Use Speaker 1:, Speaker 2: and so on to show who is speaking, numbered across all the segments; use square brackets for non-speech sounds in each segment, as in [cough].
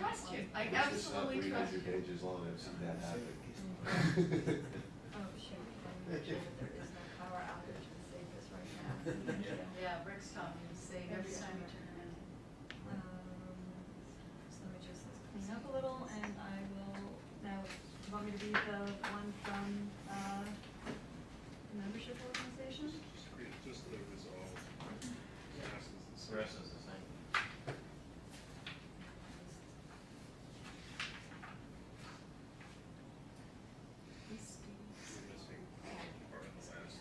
Speaker 1: question, like absolutely question.
Speaker 2: pages long, I've seen that
Speaker 3: happen.
Speaker 1: Oh, shoot, I'm not sure that there is no power outage to save us right now.
Speaker 4: [laughs] Yeah, Rick's talking,
Speaker 1: Save
Speaker 4: every
Speaker 1: us.
Speaker 4: time you turn around.
Speaker 1: Um, So let me just clean up a little and I will, now, do you want me to be the one from, uh, the membership organization?
Speaker 3: Just the resolve. The rest is the same.
Speaker 5: The rest is the same.
Speaker 3: You're missing part of the last further resolve.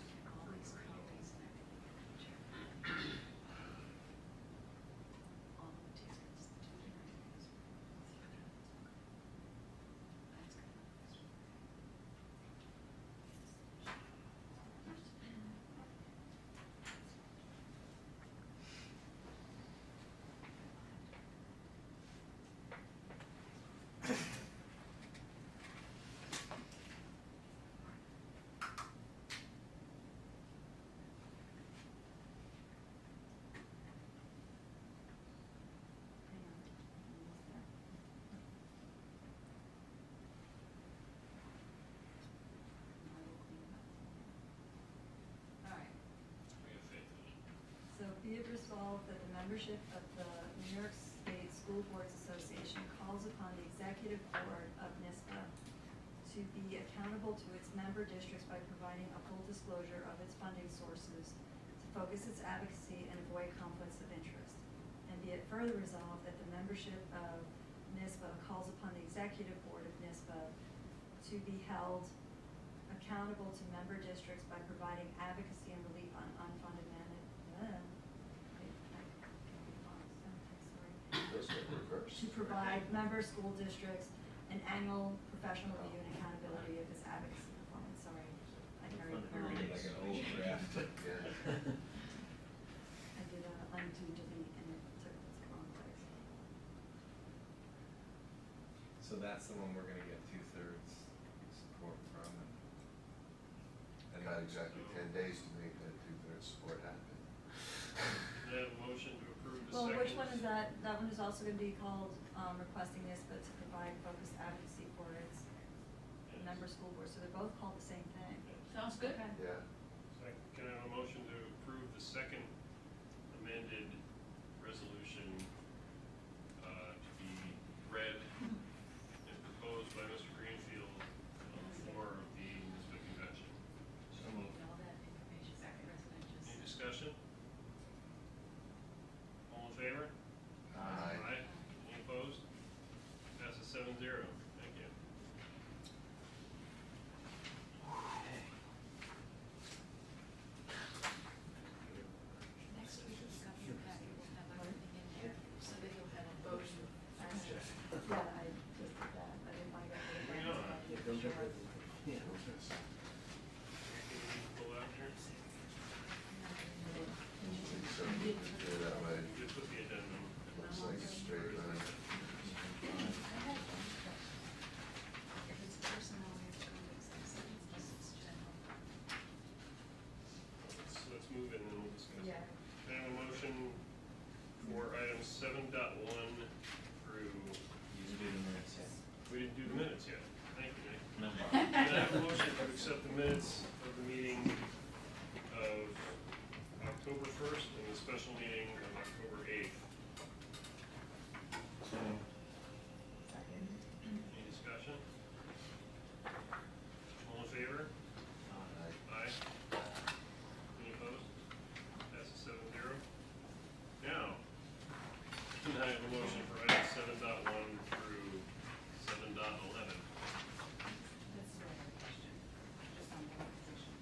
Speaker 1: Alright. So be it resolved that the membership of the New York State School Boards Association calls upon the executive board of NISBA to be accountable to its member districts by providing a full disclosure of its funding sources, to focus its advocacy and avoid conflicts of interest. And be it further resolved that the membership of NISBA calls upon the executive board of NISBA to be held accountable to member districts by providing advocacy and relief on unfunded mandate. To provide member school districts an annual professional review and accountability of its advocacy performance, sorry. I carried
Speaker 5: Fun to read
Speaker 1: on.
Speaker 5: like an old draft.
Speaker 1: [laughs] I did a undo delete and it took it to the wrong place.
Speaker 6: So that's the one we're gonna get two-thirds support from, and
Speaker 2: I got exactly ten days to make that two-thirds support happen.
Speaker 3: They have a motion to approve the
Speaker 1: Well,
Speaker 3: second.
Speaker 1: which one is that? That one is also gonna be called, um, requesting this, but to provide focused advocacy for its
Speaker 3: Yes.
Speaker 1: member school board, so they're both called the same thing.
Speaker 3: Yes.
Speaker 4: Sounds good?
Speaker 1: Okay.
Speaker 2: Yeah,
Speaker 3: Second, can I have a motion to approve the second amended resolution, uh, to be read and proposed by Mr. Greenfield on the floor of the NISBA convention?
Speaker 5: So moved.
Speaker 4: All that information, residential.
Speaker 3: Any discussion? All in favor? Ah.
Speaker 2: Aye.
Speaker 3: Any opposed? Passes seven zero. Thank you.
Speaker 4: Next week, we've got your packet, we'll have everything in there, so that you'll have a motion.
Speaker 1: Yeah, I just did that, I didn't wanna go through
Speaker 3: Hang on.
Speaker 1: the branch, but sure.
Speaker 3: Can we pull out here?
Speaker 2: so we can do it that way,
Speaker 3: Just put the addendum.
Speaker 2: looks like a straight line.
Speaker 4: I have one question. If it's personal, we have to go to executive session, unless it's general.
Speaker 3: Let's, let's move it and then we'll discuss. it.
Speaker 1: Yeah.
Speaker 3: Can I have a motion for items seven dot one through,
Speaker 5: You do the minutes,
Speaker 3: we didn't do the minutes yet. Thank you, Nick.
Speaker 5: No problem.
Speaker 3: Can I have a motion to accept the minutes of the meeting of October first and the special meeting of October eighth?
Speaker 5: So moved.
Speaker 3: Any discussion? All in favor?
Speaker 2: Aye.
Speaker 3: Aye. Any opposed? Passes seven zero. Now, [laughs] can I have a motion for items seven dot one through seven dot eleven?
Speaker 4: That's the right question, just on the position.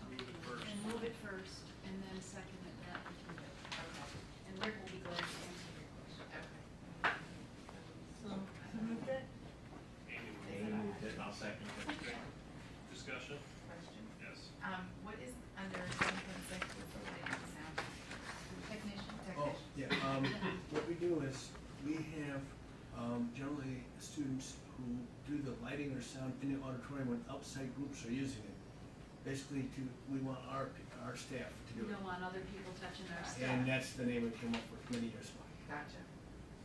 Speaker 3: Move it first.
Speaker 4: And move it first, and then second it, that we can do. Okay. And Rick will be glad to answer your question. Okay.
Speaker 1: So,
Speaker 4: uh,
Speaker 1: who moved it?
Speaker 3: Amy, will
Speaker 5: You
Speaker 3: you-
Speaker 5: moved it, I'll second it.
Speaker 3: discussion?
Speaker 7: question.
Speaker 3: Yes.
Speaker 7: Um, what is under seven point six with related to sound? Technician,
Speaker 8: Oh,
Speaker 7: technician.
Speaker 8: yeah, um, what we do is, we have, um, generally students who do the lighting or sound in the auditorium when outside groups are using it. Basically to, we want our, our staff to
Speaker 4: You
Speaker 8: do
Speaker 4: don't
Speaker 8: it.
Speaker 4: want other people touching our stuff.
Speaker 8: uh, And that's the name we came up with many years ago.
Speaker 7: Gotcha.